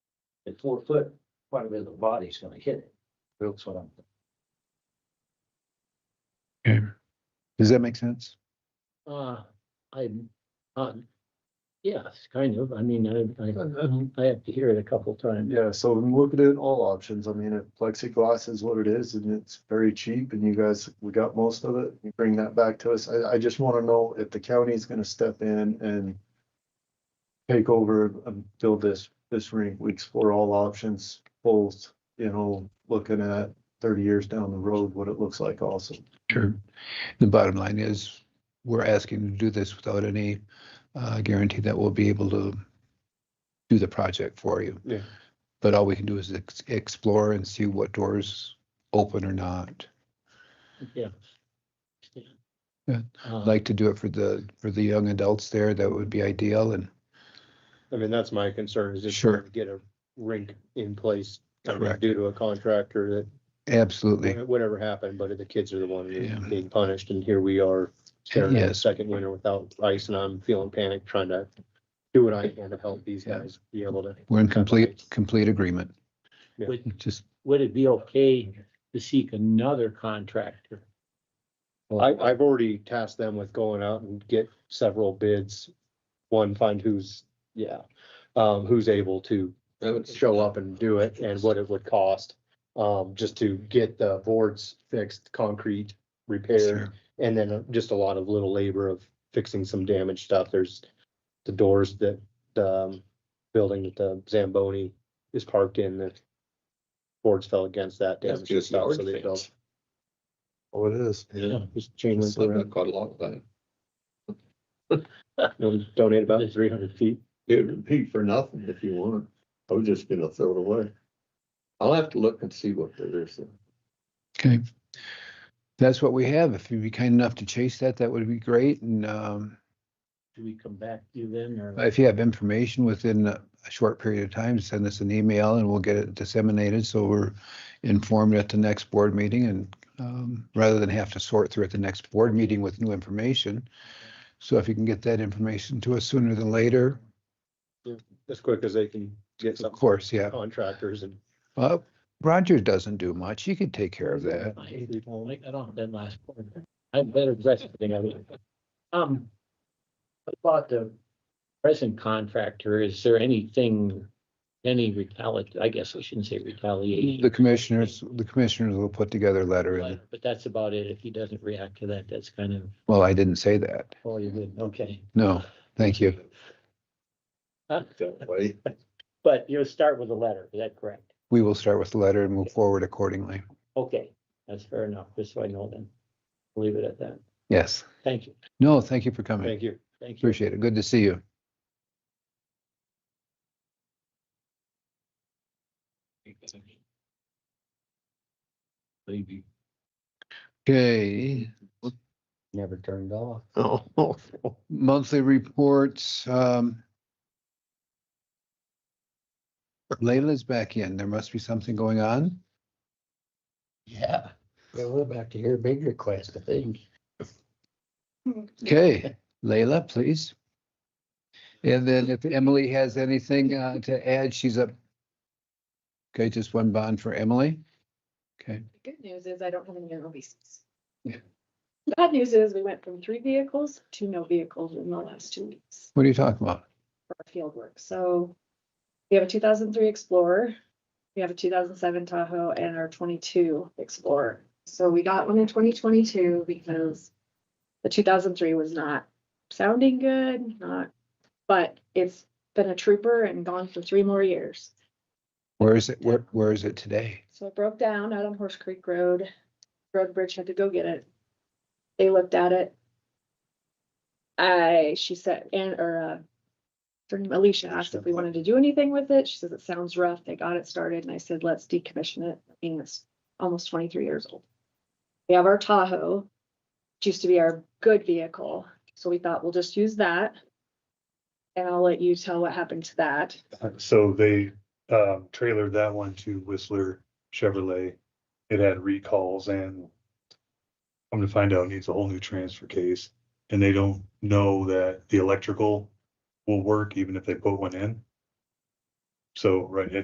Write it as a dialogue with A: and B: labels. A: At four foot, quite a bit of the body's gonna hit it. That's what I'm.
B: Okay. Does that make sense?
C: Uh, I'm, uh, yes, kind of. I mean, I, I, I have to hear it a couple times.
D: Yeah, so I'm looking at all options. I mean, if plexiglass is what it is and it's very cheap and you guys, we got most of it, you bring that back to us. I, I just wanna know if the county's gonna step in and take over and build this, this rink. We explore all options, both, you know, looking at thirty years down the road, what it looks like also.
B: Sure. The bottom line is, we're asking to do this without any uh, guarantee that we'll be able to do the project for you.
D: Yeah.
B: But all we can do is ex- explore and see what doors open or not.
C: Yeah.
B: Yeah, I'd
C: Uh,
B: like to do it for the, for the young adults there. That would be ideal and
E: I mean, that's my concern is just
B: Sure.
E: trying to get a rink in place I mean,
B: Correct.
E: due to a contractor
B: absolutely.
E: that whatever happened, but the kids are the one
B: Yeah.
E: being punished and here we are staring at a
B: Yes.
E: second winter without ice and I'm feeling panic trying to do what I can to help these
B: Yeah.
E: guys be able to.
B: We're in complete, complete agreement.
E: Yeah.
C: Would-
B: Just,
C: Would it be okay to seek another contractor?
E: I, I've already tasked them with going out and get several bids. One, find who's, yeah, um, who's able to show up and do it and what it would cost. Um, just to get the boards fixed, concrete repaired,
B: sure.
E: and then uh, just a lot of little labor of fixing some damaged stuff. There's the doors that the um, building that the Zamboni is parked in, the boards fell against that
F: That's
E: damaged
F: just
E: stuff.
F: yard
E: So they
F: fence.
E: built,
D: Oh, it is.
F: Yeah.
E: just chain
F: It's
E: link
F: like
E: around.
F: that quite a lot of that.
E: It was donated about three hundred feet.
F: It would be for nothing if you want. I was just gonna throw it away. I'll have to look and see what there is.
B: Okay. That's what we have. If you'd be kind enough to chase that, that would be great. And, um,
C: Do we come back to you then or?
B: If you have information within a short period of time, send us an email and we'll get it disseminated so we're informed at the next board meeting and um, rather than have to sort through at the next board meeting with new information. So if you can get that information to us sooner than later,
E: as quick as they can get
B: of
E: some
B: course, yeah.
E: contractors and.
B: Uh, Roger doesn't do much. He could take care of that.
C: I hate it. Well, like, I don't have that last part. I'm better dressed than I was. Um, about the present contractor, is there anything, any retaliate, I guess I shouldn't say retaliation.
B: The commissioners, the commissioners will put together a letter and,
C: But but that's about it. If he doesn't react to that, that's kind of
B: well, I didn't say that.
C: all you're good. Okay.
B: No, thank you.
F: That way.
C: But you'll start with a letter, is that correct?
B: We will start with the letter and move forward accordingly.
C: Okay, that's fair enough, just so I know then. Leave it at that.
B: Yes.
C: Thank you,
B: No, thank you for coming.
E: Thank you.
C: thank you.
B: Appreciate it. Good to see you.
A: Maybe.
B: Okay,
C: Never turned off.
F: Oh.
B: monthly reports. um, Layla's back in. There must be something going on.
C: Yeah, Yeah, we're about to hear a big request, I think.
B: Okay, Layla, please. And then if Emily has anything uh, to add, she's up. Okay, just one bond for Emily. Okay,
G: The good news is I don't have any obese.
B: Yeah.
G: Bad news is we went from three vehicles to no vehicles in the last two weeks
B: what are you talking about?
G: for our field work. So we have a two thousand three Explorer, we have a two thousand seven Tahoe and our twenty-two Explorer. So we got one in twenty twenty-two because the two thousand three was not sounding good, not, but it's been a trooper and gone for three more years.
B: Where is it? Where, where is it today?
G: So it broke down out on Horse Creek Road. Road Bridge had to go get it. They looked at it. I, she said, and, or, uh, her name Alicia asked if we wanted to do anything with it. She says, it sounds rough. They got it started. And I said, let's decommission it. I mean, it's almost twenty-three years old. We have our Tahoe, which used to be our good vehicle. So we thought we'll just use that. And I'll let you tell what happened to that.
H: So they um trailered that one to Whistler Chevrolet. It had recalls and I'm gonna find out needs a whole new transfer case. And they don't know that the electrical will work even if they put one in. So, right, it